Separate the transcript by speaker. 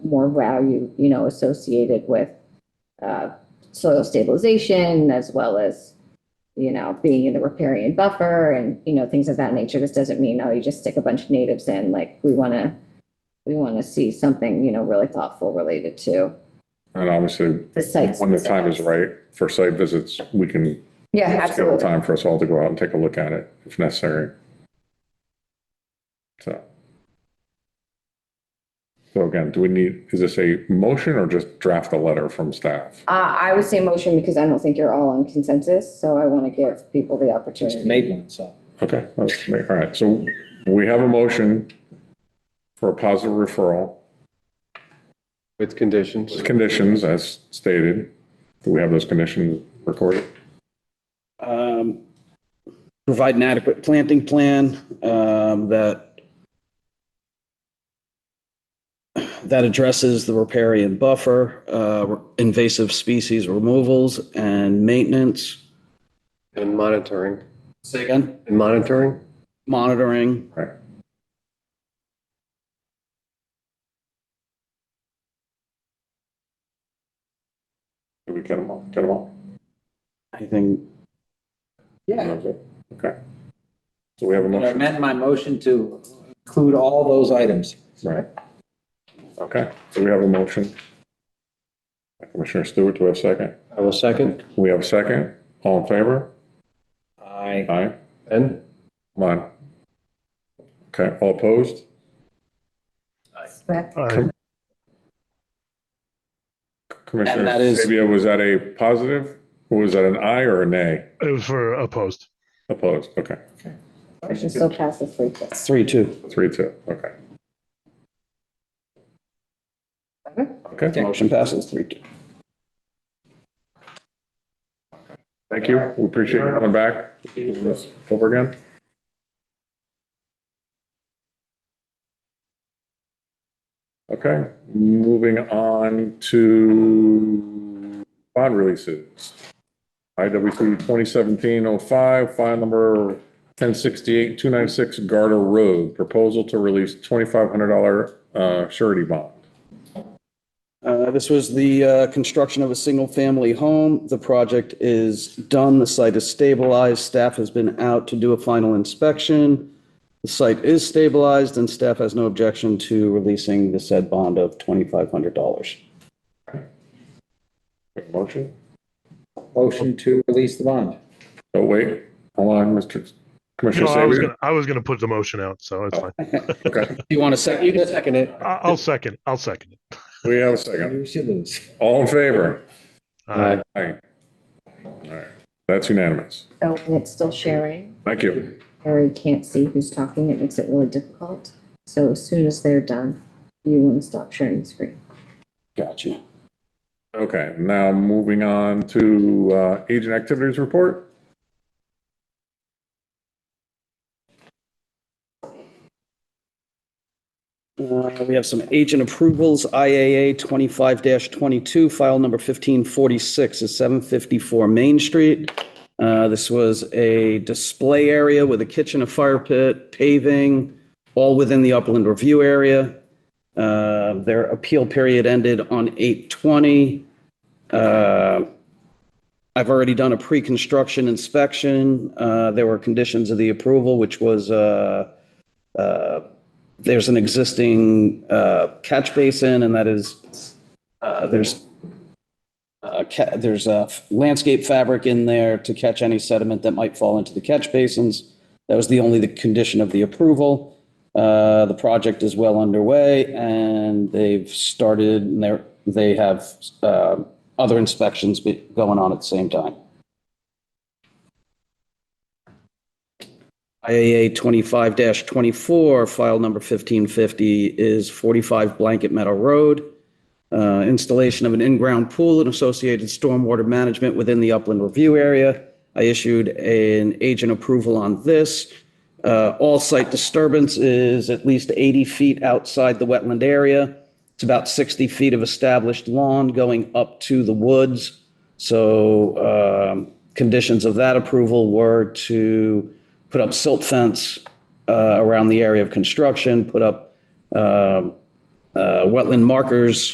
Speaker 1: more value, you know, associated with uh, soil stabilization as well as, you know, being in the riparian buffer and, you know, things of that nature. This doesn't mean, oh, you just stick a bunch of natives in, like, we want to, we want to see something, you know, really thoughtful related to
Speaker 2: And obviously,
Speaker 1: the sites.
Speaker 2: when the time is right for site visits, we can
Speaker 1: Yeah,
Speaker 2: schedule
Speaker 1: absolutely.
Speaker 2: time for us all to go out and take a look at it if necessary. So. So again, do we need, is this a motion or just draft a letter from staff?
Speaker 1: Uh, I would say motion because I don't think you're all on consensus, so I want to give people the
Speaker 3: Just
Speaker 1: opportunity.
Speaker 3: made one, so.
Speaker 2: Okay, let's make, all right, so we have a motion for a positive referral
Speaker 4: With conditions.
Speaker 2: with conditions as stated. Do we have those conditions recorded?
Speaker 5: um, provide an adequate planting plan, um, that that addresses the riparian buffer, uh, invasive species removals and maintenance.
Speaker 4: And monitoring.
Speaker 5: Say again?
Speaker 4: And monitoring?
Speaker 5: Monitoring.
Speaker 2: Right. Did we get them all? Get them all?
Speaker 5: I think,
Speaker 2: Okay. So we have a
Speaker 3: I
Speaker 2: motion,
Speaker 3: amend my motion to include all those items.
Speaker 2: right? Okay, so we have a motion. Commissioner Stewart, do we have a second?
Speaker 4: I will second.
Speaker 2: We have a second. All in favor?
Speaker 3: I
Speaker 2: Aye.
Speaker 4: And
Speaker 2: Come on. Okay, all opposed? Commissioner
Speaker 5: that is-
Speaker 2: Sabia, was that a positive? Or was that an aye or a nay?
Speaker 6: Uh, for opposed.
Speaker 2: Opposed, okay.
Speaker 1: Motion still passes three to.
Speaker 5: three, two.
Speaker 2: Three, two, okay. Okay,
Speaker 5: Motion passes three, two.
Speaker 2: thank you. We appreciate you coming back. Over again. Okay, moving on to bond releases. IWC 2017-05, file number 1068-296 Garter Road, proposal to release $2,500 uh, surety bond.
Speaker 5: Uh, This was the uh, construction of a single-family home. The project is done, the site is stabilized, staff has been out to do a final inspection. The site is stabilized, and staff has no objection to releasing the said bond of $2,500.
Speaker 2: Motion?
Speaker 3: motion to release the bond.
Speaker 2: Oh, wait, hold on, Mr. Commissioner
Speaker 6: No, I was
Speaker 2: Sabia.
Speaker 6: gonna, I was gonna put the motion out, so it's fine.
Speaker 2: Okay,
Speaker 5: You want to second?
Speaker 4: you can second it.
Speaker 6: I- I'll second, I'll second it.
Speaker 2: we have a second.
Speaker 3: You should lose.
Speaker 2: All in favor?
Speaker 6: Uh,
Speaker 2: Aye. All right, that's unanimous.
Speaker 1: Oh, and it's still sharing.
Speaker 2: Thank you.
Speaker 1: Harry can't see who's talking. It makes it really difficult. So as soon as they're done, you want to stop sharing the screen.
Speaker 5: Got you.
Speaker 2: Okay, now moving on to uh, agent activities report.
Speaker 5: Uh, We have some agent approvals, IAA 25-22, file number 1546 is 754 Main Street. Uh, This was a display area with a kitchen, a fire pit, paving, all within the upland review area. Uh, Their appeal period ended on 8/20. Uh, I've already done a pre-construction inspection. Uh, There were conditions of the approval, which was uh, there's an existing uh, catch basin, and that is, uh, there's, uh, ca- there's a landscape fabric in there to catch any sediment that might fall into the catch basins. That was the only the condition of the approval. Uh, The project is well underway, and they've started, and they're, they have uh, other inspections be- going on at the same time. IAA 25-24, file number 1550 is 45 Blanket Meadow Road. Uh, Installation of an in-ground pool and associated stormwater management within the upland review area. I issued an agent approval on this. Uh, All site disturbance is at least 80 feet outside the wetland area. It's about 60 feet of established lawn going up to the woods. So um, conditions of that approval were to put up silt fence uh, around the area of construction, put up um, uh, wetland markers